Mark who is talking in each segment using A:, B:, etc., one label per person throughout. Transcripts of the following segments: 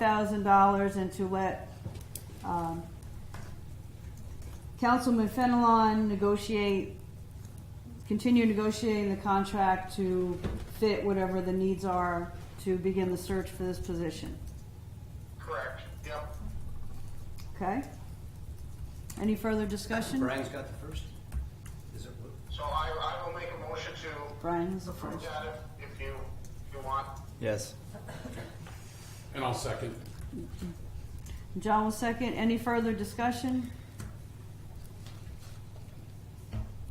A: thousand dollars and to let, um, Councilman Fenelon negotiate, continue negotiating the contract to fit whatever the needs are to begin the search for this position,
B: Correct, yep.
A: okay? Any further discussion?
C: Brian's got the first? Is it, what-
B: So I, I will make a motion to
A: Brian is the
B: approve
A: first.
B: that if, if you, if you want.
D: Yes.
E: And I'll second.
A: John will second. Any further discussion?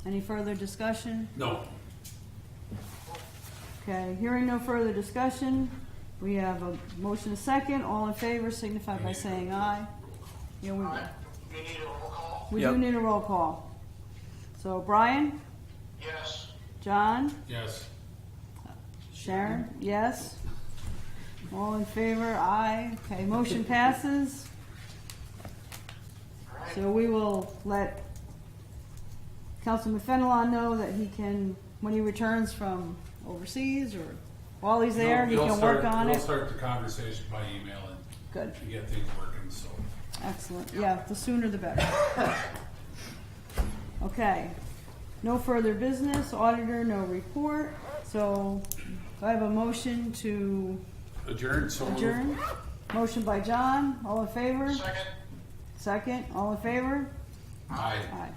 A: Any further discussion?
E: No.
A: Okay, hearing no further discussion, we have a motion a second, all in favor signify by saying aye. Yeah, we,
B: You need a roll call?
A: we do
D: Yep.
A: need a roll call. So Brian,
B: Yes.
A: John,
E: Yes.
A: Sharon, yes? All in favor, aye. Okay, motion passes.
B: All right.
A: So we will let Councilman Fenelon know that he can, when he returns from overseas or while he's there, he
E: We'll- we'll
A: can work
E: start-
A: on
E: We'll
A: it.
E: start the conversation by email and
A: Good.
E: to get things working, so.
A: Excellent, yeah, the sooner the better. Okay, no further business, auditor, no report, so do I have a motion to
E: Adjourn, so. moved.
A: adjourn? Motion by John, all in favor?
B: Second?
A: Second, all in favor?
E: Aye.
A: Aye.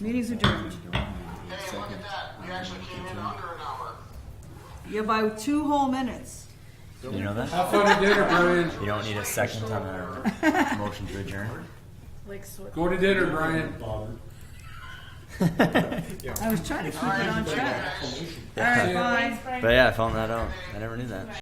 A: Meeting's adjourned.
B: Hey, look at that, we actually came in under an hour.
A: Yeah, by two whole minutes.
D: You know that?
E: Have fun at dinner, Brian.
D: You don't need a second on a motion to adjourn.
F: Like, so
E: Go to dinner, Brian.
A: I was trying to keep it on track. All right,
E: Yeah.
A: bye.
F: Thanks, Brian.
D: But yeah, I found that out. I never knew that.